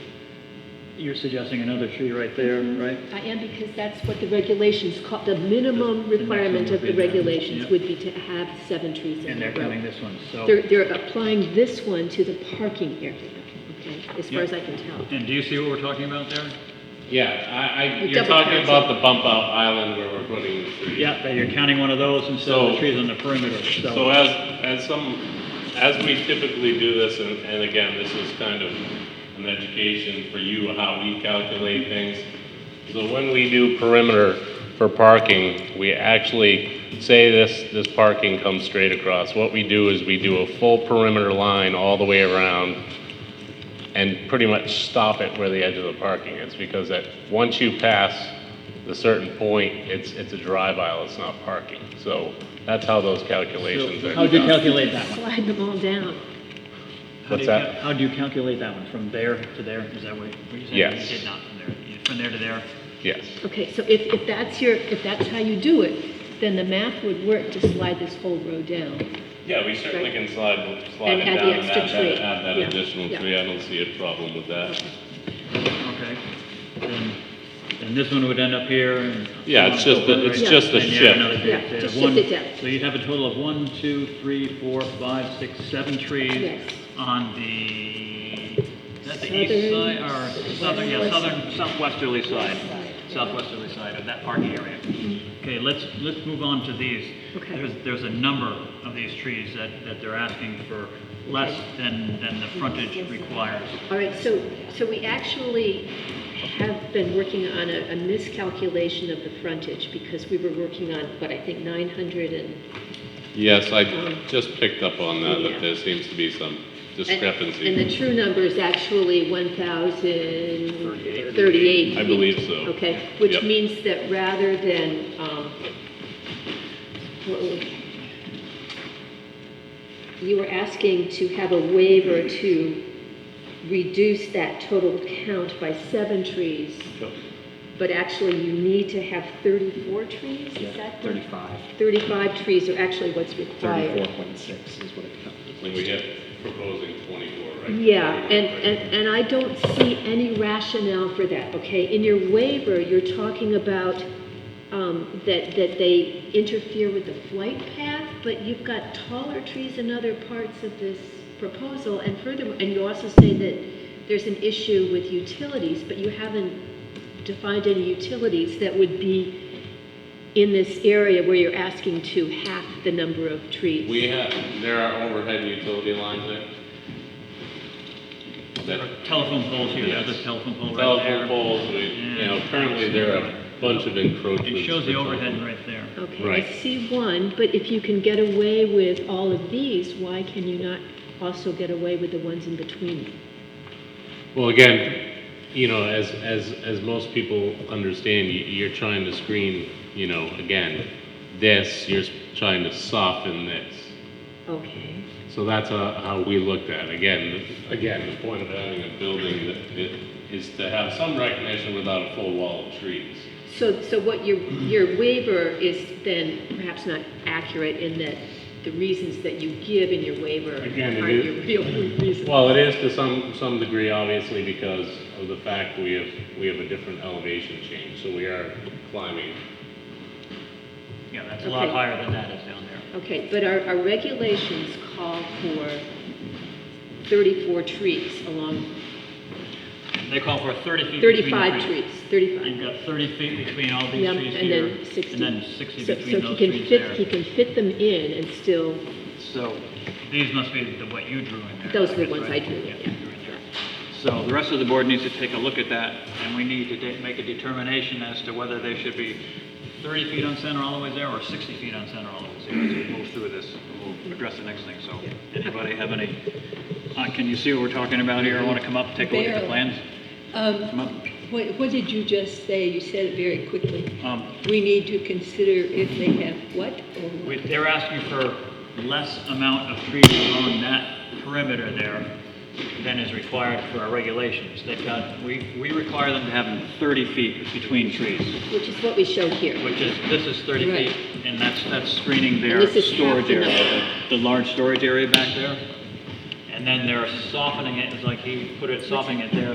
You're suggesting another tree right there, right? I am because that's what the regulations call, the minimum requirement of the regulations would be to have seven trees in And the they're coming row. this one, so. They're, they're applying this one to the parking area, okay, as far as I can tell. And do you see what we're talking about there? Yeah, I, I, You you're double talking counted. about the bump out island where we're putting the trees. Yeah, that you're counting one of those instead of the So- trees on the perimeter, So so. as, as some, as we typically do this, and, and again, this is kind of an education for you, how we calculate things. So when we do perimeter for parking, we actually say this, this parking comes straight across. What we do is we do a full perimeter line all the way around, and pretty much stop it where the edge of the parking is, because that, once you pass the certain point, it's, it's a drive aisle, it's not parking. So that's how those calculations are How'd you done. calculate that one? Slide them all down. How do What's you that? cal- How do you calculate that one, from there to there, is that what what you're saying? Yes. You did not from there, You- from there to there? Yes, Okay, so if, if that's your, if that's how you do it, then the math would work to slide this whole row down. yeah, we certainly can slide, slide And it add the down and extra add tree. that, add that Yeah, additional yeah. tree, I don't see a problem with that. Okay. Then, then this one would end up here and. Yeah, it's just a- it's Yeah. just a And you have shift. another big- Yeah, uh, just one- shift it down. So you'd have a total of one, two, three, four, five, six, seven trees Yes. on the, is that the east Southern- side or southern, yeah, southern, southwesterly side. Southwesterly side of that parking area. Okay, let's, let's move on to these. Mm-hmm. Okay. There's, there's a number of these trees that, that they're asking for less than, than the frontage requires. All right, so, so we actually have been working on a, a miscalculation of the frontage because we were working on, what, I think 900 and, Yes, I Um, just picked up on that, yeah. that there seems to be some And discrepancy. the true number is actually 1,038. I feet. believe so. Okay, which Yep. means that rather than, um, what was- you were asking to have a waiver to reduce that total count by seven trees, but actually you need to have 34 trees, is that? correct? 35, 35 trees are actually what's required. 34.6 is what it comes. And we have proposing twenty-four, right? Yeah, and, and, and I don't see any rationale for that, okay? In your waiver, you're talking about, um, that, that they interfere with the flight path, but you've got taller trees in other parts of this proposal, and furthermore, and you also say that there's an issue with utilities, but you haven't defined any utilities that would be in this area where you're asking to half the number of trees. We have, there are overhead utility lines there. That Telephone poles here, there's a Yes. telephone pole right telephone there. poles, we, you know, currently there are a bunch of encroachments. It shows the for overhead telephone. right there. Okay, Right. I see one, but if you can get away with all of these, why can you not also get away with the ones in between? Well, again, you know, as, as, as most people understand, you, you're trying to screen, you know, again, this, you're trying to soften this. Okay, So that's uh, how we looked at it. Again, the- again, the point of having a building that it is to have some recognition without a full wall of trees. so, so what your, your waiver is then perhaps not accurate in that the reasons that you give in your waiver Again, it aren't is- your real reasons. Well, it is to some, some degree, obviously, because of the fact we have, we have a different elevation change, so we are climbing. Yeah, that's a lot Okay. higher than that is down there. Okay, but our, our regulations call for 34 trees along, They call for 30 feet between the 35 trees, 35. You've got 30 feet between all these Yeah, trees and here. then 60. And then 60 So- between those So he can trees fit, he there. can fit them in and still, So these must be the, what you drew in there. Those are the guess, ones right? I drew, yeah. you drew in there. So the rest of the board needs to take a look at that, and we need to de- make a determination as to whether they should be 30 feet on center all the way there, or 60 feet on center all the way there, as we move through this. We'll address the next thing, so anybody have any, uh, can you see what we're talking about here? Want to come up, take a look at the Barely. plans? Come Um, up. What, what did you just say? You said it very quickly. Um, We need to consider if they have what or what. We- They're asking for less amount of trees along that perimeter there than is required for our regulations. They've got, we, we require them to have 30 feet between trees, which is what we show here. which is, this is 30 Right. feet, and that's, that's screening their And this is half storage the area, number. the large storage area back there. And then they're softening it, it's like he put it, softening it there